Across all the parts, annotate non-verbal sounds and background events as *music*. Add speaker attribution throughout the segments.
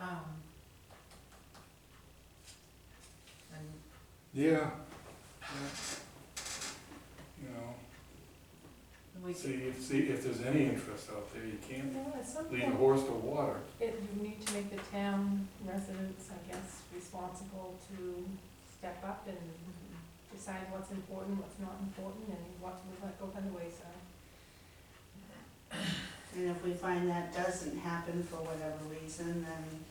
Speaker 1: Um, and
Speaker 2: Yeah. Yeah. You know,
Speaker 1: we,
Speaker 2: see, if, see if there's any interest out there, you can't
Speaker 3: Well, at some
Speaker 2: lead a
Speaker 3: point,
Speaker 2: horse to water.
Speaker 3: it, you need to make the town residents, I guess, responsible to step up and decide what's important, what's not important, and what we let go by the wayside.
Speaker 1: and if we find that doesn't happen for whatever reason, then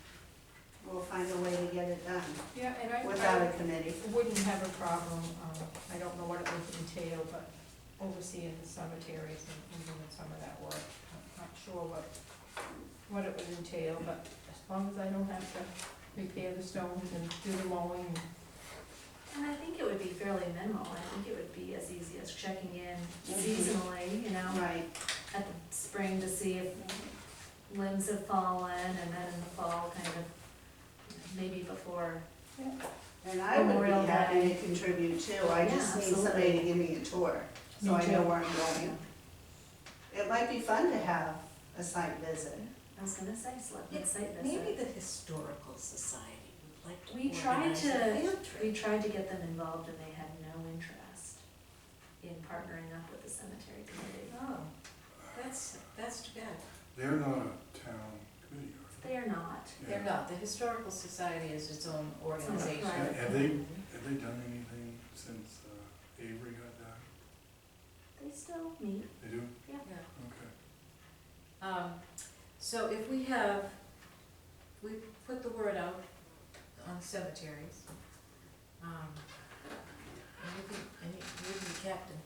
Speaker 1: we'll find a way to get it done
Speaker 3: Yeah, and I,
Speaker 1: without
Speaker 3: I
Speaker 1: a committee.
Speaker 3: wouldn't have a problem, um, I don't know what it would entail, but overseeing the cemeteries and and doing some of that work. I'm not sure what, what it would entail, but as long as I don't have to repair the stones and do the mowing and
Speaker 4: And I think it would be fairly minimal, I think it would be as easy as checking in
Speaker 1: Mhm.
Speaker 4: seasonally, you know,
Speaker 1: Right.
Speaker 4: at the spring to see if limbs have fallen, and then in the fall, kind of, maybe before.
Speaker 1: And I would
Speaker 4: Memorial
Speaker 1: be happy
Speaker 4: Day.
Speaker 1: to contribute too, I just
Speaker 4: Yeah,
Speaker 1: need somebody to
Speaker 4: absolutely.
Speaker 1: give me a tour, so
Speaker 3: Me
Speaker 1: I know
Speaker 3: too.
Speaker 1: where I'm going. It might be fun to have a site visit.
Speaker 4: I was gonna say, select the site
Speaker 5: Maybe
Speaker 4: visit.
Speaker 5: the historical society would like to
Speaker 4: We tried
Speaker 5: organize a
Speaker 4: to-
Speaker 5: field
Speaker 4: We
Speaker 5: trip.
Speaker 4: tried to get them involved, and they had no interest in partnering up with the cemetery committee.
Speaker 5: Oh, that's, that's too bad.
Speaker 2: They're not a town committee,
Speaker 4: They are not.
Speaker 2: are they?
Speaker 6: They're
Speaker 2: Yeah.
Speaker 6: not, the Historical Society is its own organization.
Speaker 4: Right.
Speaker 2: Have have they, have they done anything since uh, Avery got died?
Speaker 4: They still meet.
Speaker 2: They do?
Speaker 6: Yeah.
Speaker 2: Okay.
Speaker 6: Um, so if we have, we put the word out on cemeteries. Um, and you can, and you you can be captain.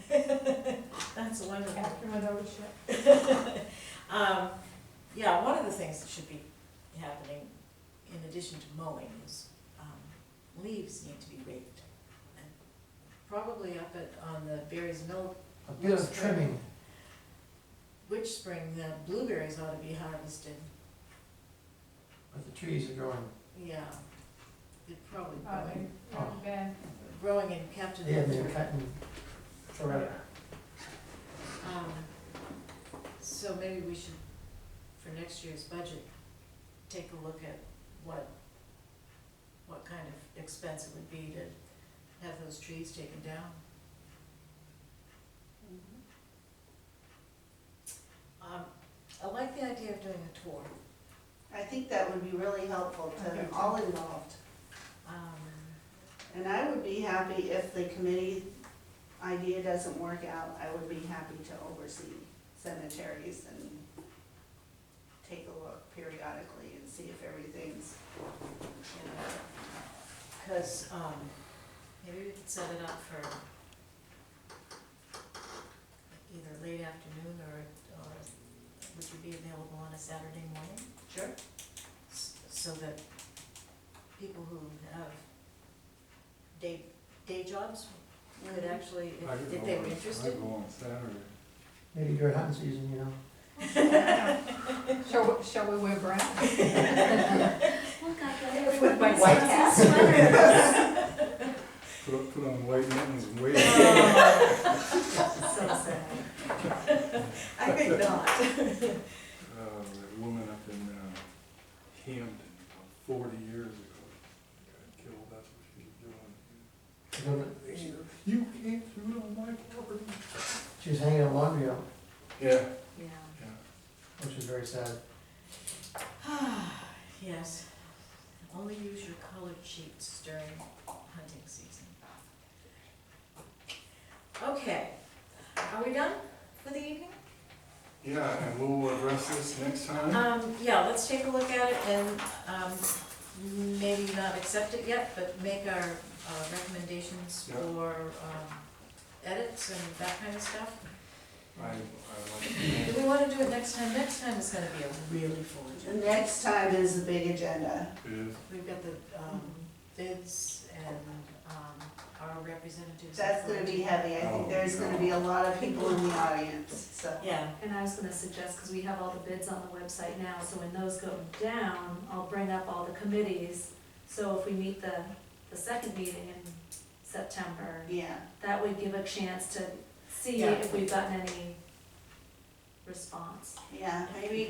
Speaker 6: *laughs* That's wonderful.
Speaker 3: after my ownership.
Speaker 6: *laughs* Um, yeah, one of the things that should be happening, in addition to mowing, is, um, leaves need to be raked. And Probably up at, on the Berry's Mill,
Speaker 7: A bit of trimming,
Speaker 6: which spring, the blueberries ought to be harvested,
Speaker 7: but the trees are growing,
Speaker 6: yeah. They're probably
Speaker 3: Uh,
Speaker 6: growing,
Speaker 3: not bad.
Speaker 6: growing in Captain.
Speaker 7: they have been cutting forever.
Speaker 6: Um, so maybe we should, for next year's budget, take a look at what, what kind of expense it would be to have those trees taken down. Um, I like the idea of doing a tour.
Speaker 1: I think that would be really helpful
Speaker 3: Okay.
Speaker 1: to all involved.
Speaker 6: Um,
Speaker 1: And I would be happy if the committee idea doesn't work out, I would be happy to oversee cemeteries and take a look periodically and see if everything's, you know,
Speaker 6: cause, um, maybe we could set it up for either late afternoon or, or would you be available on a Saturday morning?
Speaker 1: sure.
Speaker 6: s- so that people who have day, day jobs could actually,
Speaker 2: I
Speaker 6: if-
Speaker 2: could
Speaker 6: if
Speaker 2: go
Speaker 6: they
Speaker 2: on-
Speaker 6: were
Speaker 2: I
Speaker 6: interested.
Speaker 2: go on Saturday.
Speaker 7: Maybe during hunting season, you know.
Speaker 3: *laughs* Shall, we- shall we wear brown?
Speaker 4: Look, I got it.
Speaker 3: With my
Speaker 4: *laughs*
Speaker 7: white
Speaker 4: hat. Sweater.
Speaker 2: Put, on- put on white mittens and
Speaker 6: *laughs*
Speaker 2: Uh, wait.
Speaker 4: So sad.
Speaker 6: I think not.
Speaker 2: Uh, that woman up in uh, Camden, about forty years ago, got killed, that's what she was doing.
Speaker 7: She was-
Speaker 2: You came through on my property.
Speaker 7: She was hanging a laundry out,
Speaker 2: Yeah,
Speaker 4: Yeah.
Speaker 2: yeah.
Speaker 7: which was very sad.
Speaker 6: *sighs* Yes, only use your colored sheets during hunting season. Okay, are we done for the evening?
Speaker 2: Yeah, and we'll address this next time.
Speaker 6: Um, yeah, let's take a look at it and, um, maybe not accept it yet, but make our uh, recommendations
Speaker 2: Yeah.
Speaker 6: for, um, edits and that kind of stuff.
Speaker 2: I, I
Speaker 6: Do
Speaker 2: like,
Speaker 6: we wanna do it next time? Next time is gonna be a really full
Speaker 1: The
Speaker 6: agenda.
Speaker 1: next time is the big agenda.
Speaker 2: it is,
Speaker 6: We've got the, um, bids and, um, our representatives.
Speaker 1: That's gonna be heavy, I think there's gonna be a lot of people in the audience, so.
Speaker 6: Yeah,
Speaker 4: And I was gonna suggest, because we have all the bids on the website now, so when those go down, I'll bring up all the committees. So if we meet the, the second meeting in September,
Speaker 1: Yeah,
Speaker 4: that would give a chance to see
Speaker 6: Yeah.
Speaker 4: if we've gotten any response.
Speaker 1: yeah, maybe